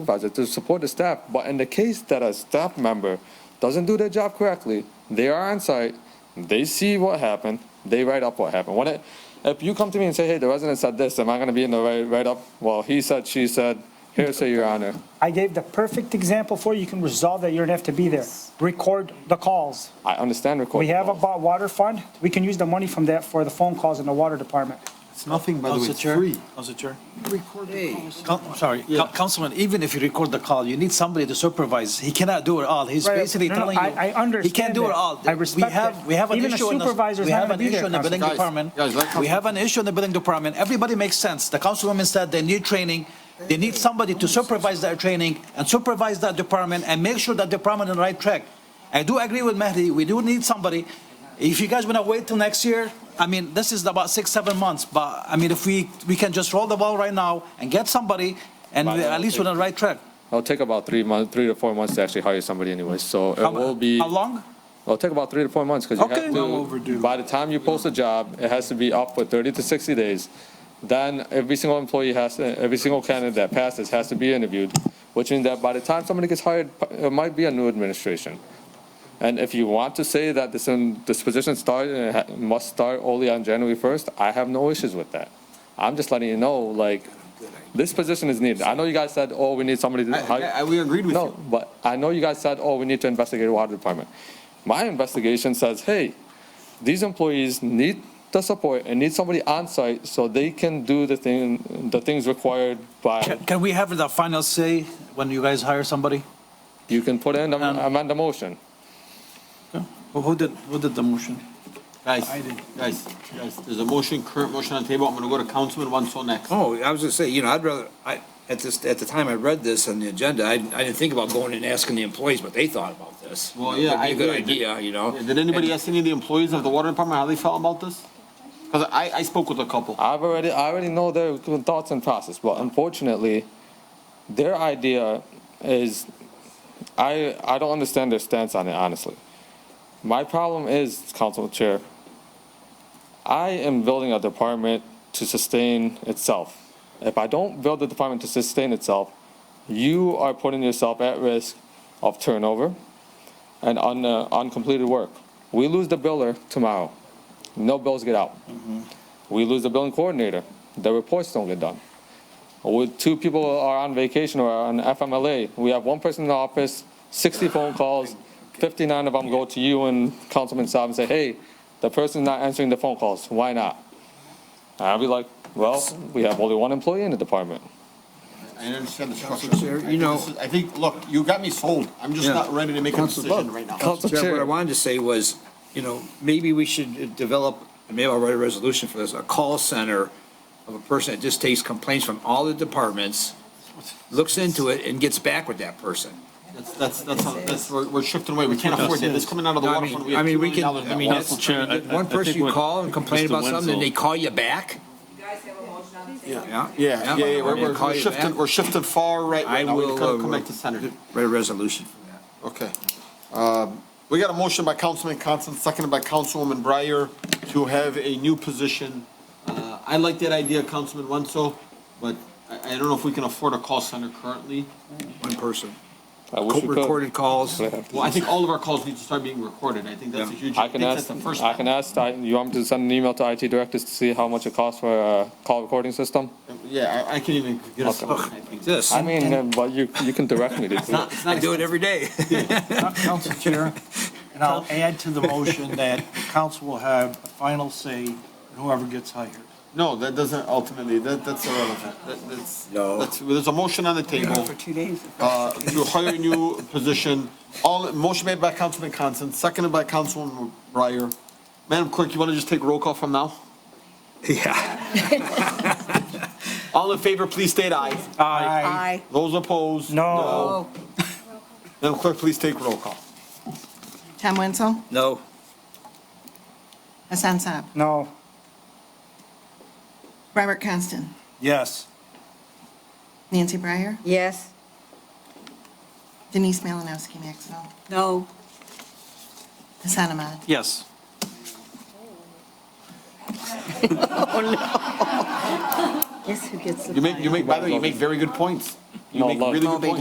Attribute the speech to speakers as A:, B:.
A: supervisor to support the staff, but in the case that a staff member doesn't do their job correctly, they are on site, they see what happened, they write up what happened. When it, if you come to me and say, hey, the resident said this, am I gonna be in the write, write up? Well, he said, she said, hearsay, your honor.
B: I gave the perfect example for you. You can resolve that. You don't have to be there. Record the calls.
A: I understand recording.
B: We have a bo- water fund. We can use the money from that for the phone calls in the water department.
C: It's nothing, by the way,
D: Council
C: it's
D: Chair.
C: free.
D: Council Chair.
C: Record the calls.
D: Coun- I'm sorry, Coun- Councilman, even if you record the call, you need somebody to supervise. He cannot do it all. He's
B: Right.
D: basically
B: No, no,
D: telling you.
B: I- I
D: He can't
B: understand
D: do it
B: that.
D: all.
B: I respect
D: We have,
B: that.
D: we have an
B: Even a
D: issue in the.
B: supervisor's
D: we
B: not
D: have
B: gonna
D: an
B: be there,
D: issue in the building
C: Council. Guys,
D: department.
C: guys, let
D: We
C: Council-
D: have an issue in the building department. Everybody makes sense. The councilwoman said they need training. They need somebody to supervise their training and supervise that department and make sure that department on the right track. I do agree with Mehdi. We do need somebody. If you guys wanna wait till next year, I mean, this is about six, seven months, but I mean, if we, we can just roll the ball right now and get somebody and
A: Right,
D: we-
A: I
D: at least
A: think-
D: we're on the right track.
A: It'll take about three months, three to four months to actually hire somebody anyway, so
D: How
A: it will be,
D: How long?
A: it'll take about three to four months, because you
D: Okay.
A: have
D: Well
A: to, by the time you post a job, it has to be up for thirty to sixty days. Then every single employee has, to- every single candidate that passes has to be interviewed, which means that by the time somebody gets hired, it might be a new administration. And if you want to say that this, um, this position start, uh, ha- must start only on January first, I have no issues with that. I'm just letting you know, like, this position is needed. I know you guys said, oh, we need somebody to hire.
C: I- I- we agreed with
A: No,
C: you.
A: but I know you guys said, oh, we need to investigate the water department. My investigation says, hey, these employees need the support and need somebody on site so they can do the thing, the things required by,
D: Can- Can we have the final say when you guys hire somebody?
A: you can put in,
D: Um,
A: amend the motion.
D: Who who did, who did the motion?
C: Guys, guys, guys, there's a motion, current motion on the table. I'm gonna go to Councilman Wansel next.
E: Oh, I was gonna say, you know, I'd rather, I, at this, at the time I read this on the agenda, I, I didn't think about going and asking the employees what they thought about this.
C: Well, yeah, I
E: It'd be a good
C: agree.
E: idea, you know?
C: Yeah, Did anybody ask any of the employees of the water department how they felt about this? Because I, I spoke with a couple.
A: I've already, I already know their thoughts and process, but unfortunately, their idea is, I, I don't understand their stance on it, honestly. My problem is, Council Chair, I am building a department to sustain itself. If I don't build the department to sustain itself, you are putting yourself at risk of turnover and un, uh, uncompleted work. We lose the biller tomorrow. No bills get out. We lose the billing coordinator. The reports don't get done. With two people are on vacation or on FMLA, we have one person in the office, 60 phone calls, 59 of them go to you and Councilman Saab and say, hey, the person's not answering the phone calls. Why not? And I'll be like, well, we have only one employee in the department.
C: I understand the structure.
E: Chair, you
C: I think
E: know-
C: this is- I think, look, you got me sold. I'm just
E: Yeah.
C: not ready to make a
E: Council
C: decision
E: Bud.
C: right now.
A: Council
E: Chair, what I
A: Chair,
E: wanted to say was, you know, maybe we should develop, and maybe I'll write a resolution for this, a call center of a person that just takes complaints from all the departments, looks into it and gets back with that person.
C: That's, that's, that's, how- that's, we're, we're shifting away. We can't afford that. This coming out of the
E: No, I
C: water
E: mean,
C: fund, we
E: I
C: have
E: mean,
C: two
E: we
C: million
E: can,
C: dollars in
E: I
C: that
E: mean,
C: water
E: that's,
C: fund.
F: Chair, I- I- I
E: one person
F: think
E: you
F: what
E: call and complain
F: Mr.
E: about something,
F: Wenzel-
E: and they call you back?
F: You guys have a motion on the table.
E: Yeah.
C: Yeah, yeah, yeah, we're,
E: They
C: we're-
E: call
C: we're
E: you
C: shifting,
E: back?
C: we're shifting far right
E: I
C: right now. We've
E: will,
C: got to
E: uh,
C: come back to center.
E: Write a resolution for that.
C: Okay. Um, We got a motion by Councilman Constant, seconded by Councilwoman Breyer to have a new position. Uh, I like that idea, Councilman Wenzel, but I, I don't know if we can afford a call center currently.
E: One person.
A: I wish we could.
E: Recorded calls.
C: Well, I think all of our calls need to start being recorded. I think that's a huge,
A: I
C: I
A: can
C: think that's
A: ask,
C: the first
A: I can
C: step.
A: ask, I- you want me to send an email to IT directors to see how much it costs for a call recording system?
C: Yeah, I, I can even get us.
A: Okay.
C: I think.
E: This,
A: I mean, uh, but you, you can direct me to do it.
E: I do it every day.
D: Council Chair, and I'll add to the motion that council will have a final say in whoever gets hired.
C: No, that doesn't ultimately, that, that's irrelevant. That, that's,
E: No.
C: that's, there's a motion on the table. For two days. Uh, to hire a new position. All, motion made by Councilman Constant, seconded by Councilwoman Breyer. Madam Clerk, you want to just take roll call from now?
E: Yeah.
C: All in favor, please state aye.
D: Aye.
F: Aye.
C: Those opposed?
B: No.
C: Madam Clerk, please take roll call.
G: Tom Wenzel,
E: No.
G: Hassan Saab,
B: No.
G: Robert Constant,
D: Yes.
G: Nancy Breyer,
F: Yes.
G: Denise Malinowski Maxwell,
F: No.
G: Hassan Ahmad.
D: Yes.
H: guess who gets the
C: You make, you
H: final?
C: make, by the way, you make very good points. You
A: No,
C: make
A: look.
C: really good
G: Moby
C: points.